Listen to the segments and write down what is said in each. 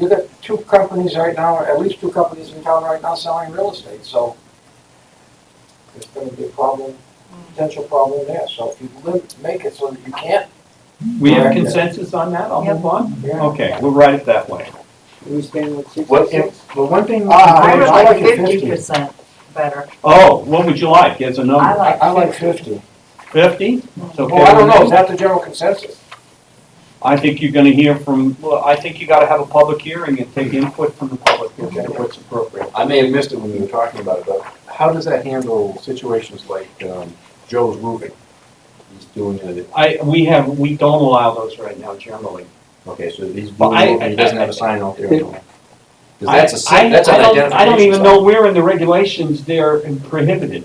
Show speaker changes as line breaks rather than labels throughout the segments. You got two companies right now, or at least two companies in town right now selling real estate, so there's gonna be a problem, potential problem there, so if you live, make it so that you can't,
We have consensus on that, I'll move on?
yeah.
Okay, we'll write it that way.
We stand with six
What,
or
if-
six?
well, one thing.
Ah,
I
I
would
was
like
like
it
fifty.
fifty percent better.
Oh, what would you like, as a
I
number?
I, I like
like fifty.
fifty.
Fifty? It's okay
Well, I don't
with
know,
me.
is that the general consensus?
I think you're gonna hear from, well, I think you gotta have a public hearing and take input from the public, if
Okay.
what's appropriate.
I may have missed it when we were talking about it, but how does that handle situations like, um, Joe's roofing? He's doing it,
I, we have, we don't allow those right now generally.
okay, so he's doing
Well, I-
roofing, he doesn't have a sign out there. anymore. 'Cause
I-
that's a,
I-
si- that's an
I don't-
identification.
I don't even
sign.
know where in the regulations they're prohibited.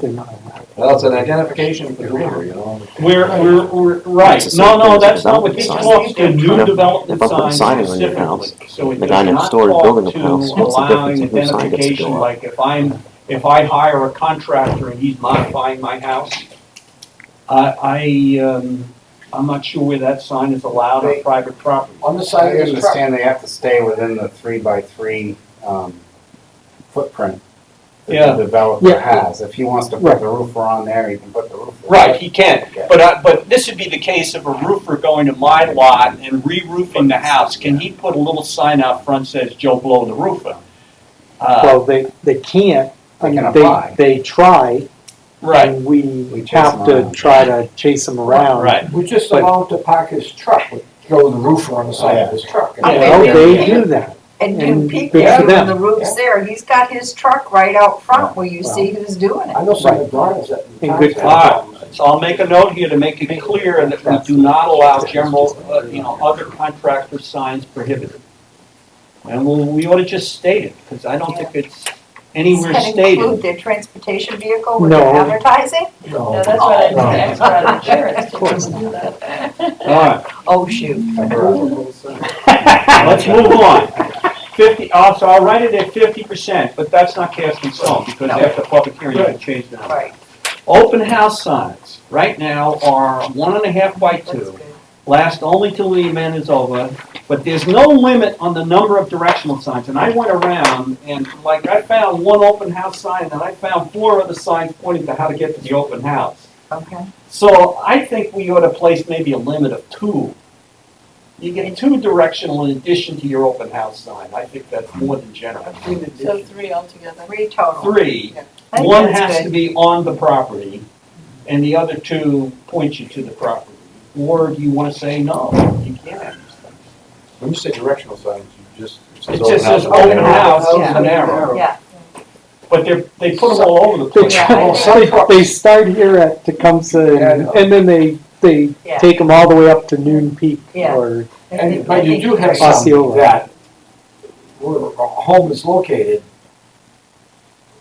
Well, it's an identification for delivery, you know?
We're, we're, we're, right,
It's the
no,
same thing
no,
as
that's
the
not what this
development
talks, the
If
new
I-
development
if I put a
sign
sign in your house,
specifically. So it
the
does
guy next
not
door is
talk
building
to
the house, what's the
allowing
difference if his sign gets to
identification,
go up?
like if I'm, if I hire a contractor and he's modifying my house, I, I, um, I'm not sure where that sign is allowed on private property.
On the
I
side of this truck,
understand they have to stay within the three by three, um, footprint
Yeah.
that the developer has. If he wants to put the roofer on there, he can put the roofer. on.
Right, he can, but, I- but this would be the case of a roofer going to my lot and re-roofing the house. Can he put a little sign out front says Joe Blow the roofer? Uh,
Well, they, they can't, I
They can
mean,
apply.
they, they try,
Right,
and
We
we
chase
have
them
to
around.
try to chase them around.
right.
we just allow him to park his truck, with Joe the roofer on the side of his truck.
Oh, yeah.
Well, they do that,
And you
And
peek
good
there
for
when
them.
the roof's there, he's got his truck right out front where you see who's doing it.
I know some McDonald's that.
And good
All right, so I'll make a note here to make it clear that we do not allow general, uh, you know, other contractor signs prohibited. And we, we ought to just state it, because I don't think it's anywhere
Does that include
stated.
their transportation vehicle with
No.
their advertising?
No.
No, that's what I, that's what I, insurance doesn't do that.
All right,
Oh, shoot.
let's move on. Fifty, uh, so I'll write it at fifty percent, but that's not cast in stone, because after public hearing, you can change that.
Right,
Open house signs, right now, are one and a half by
that's
two.
good.
last only till the event is over, but there's no limit on the number of directional signs. And I went around and like I found one open house sign and I found four other signs pointing to how to get to the open house.
Okay.
So I think we ought to place maybe a limit of two. You get two directional in addition to your open house sign. I think that's more than generous.
So three altogether.
Three total.
Three,
I think
one
that's
has
good.
to be on the property, and the other two point you to the property. Or do you wanna say, no, you can't have these things?
When you say directional signs, you just.
It just says
house,
open house,
Yeah.
with an arrow,
Yeah,
but they're, they put them all over the
they
place.
Yeah.
try, they, they start here at Tecumseh,
Yeah, I
and
know.
and then they, they
Yeah.
take them all the way up to Noon Peak,
Yeah.
or,
I
And,
think-
but
I
you
think
do have
Osceola.
some that, where a home is located,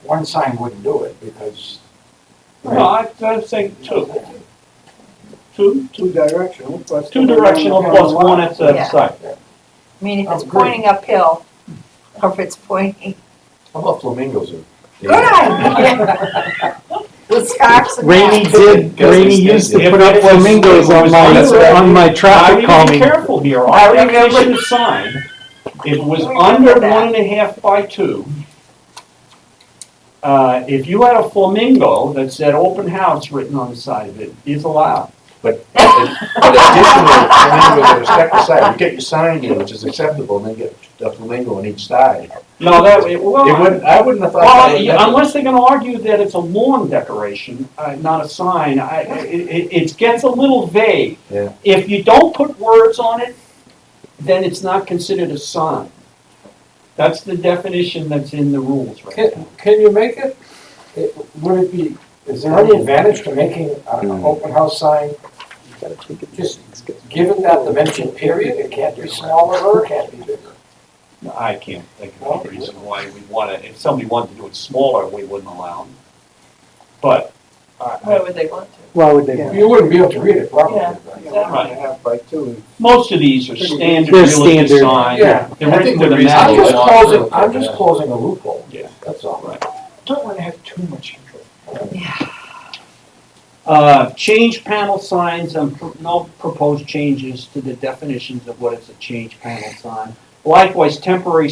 one sign wouldn't do it, because.
No, I, I'm saying two, two,
Two directional, plus.
two directional plus one at the
Yeah.
site.
I mean, if it's
Oh, good.
pointing uphill, or if it's pointing,
How about flamingos? in-
good idea. With scarves and.
Rainy
hats.
did,
Because
Rainy
it's-
used to
if
put
it
up
was-
flamingos
it
on
was
my,
under-
on my
Now,
traffic
you gotta be
calming.
careful here, our definition of sign, it was
We
under
remember that.
one and a half by two. Uh, if you had a flamingo that said open house written on the side of it, is allowed.
But additionally, flamingos are a separate side, you get your sign in, which is acceptable, and then get a flamingo on each side.
No, that, it, well.
It wouldn't, I wouldn't have thought. that
Well,
would
yeah,
happen.
unless they're gonna argue that it's a lawn decoration, uh, not a sign, I, it, it, it gets a little vague.
Yeah.
If you don't put words on it, then it's not considered a sign. That's the definition that's in the rules right
Can,
now.
can you make it, it, would it be, is there any advantage to making an open house sign, just given that dimension period, it can't be smaller or it can't be bigger?
I can't think of any reason why we wanna, if somebody wanted to do it smaller, we wouldn't allow them. But,
Where
uh,
would they want to?
Why would they?
You wouldn't be able to read it properly,
Yeah.
right?
Right.
Half by two.
most of these are standard
They're
real estate
standard.
signs.
Yeah.
They're
I
written
think
with
the
a
reason-
I'm
magic
just
Yeah.
closing, I'm just closing a loophole.
Yeah.
That's all.
Right.
Don't wanna have too much control.
Uh, change panel um, signs and pro- no proposed changes to the definitions of what is a change panel sign. Likewise, temporary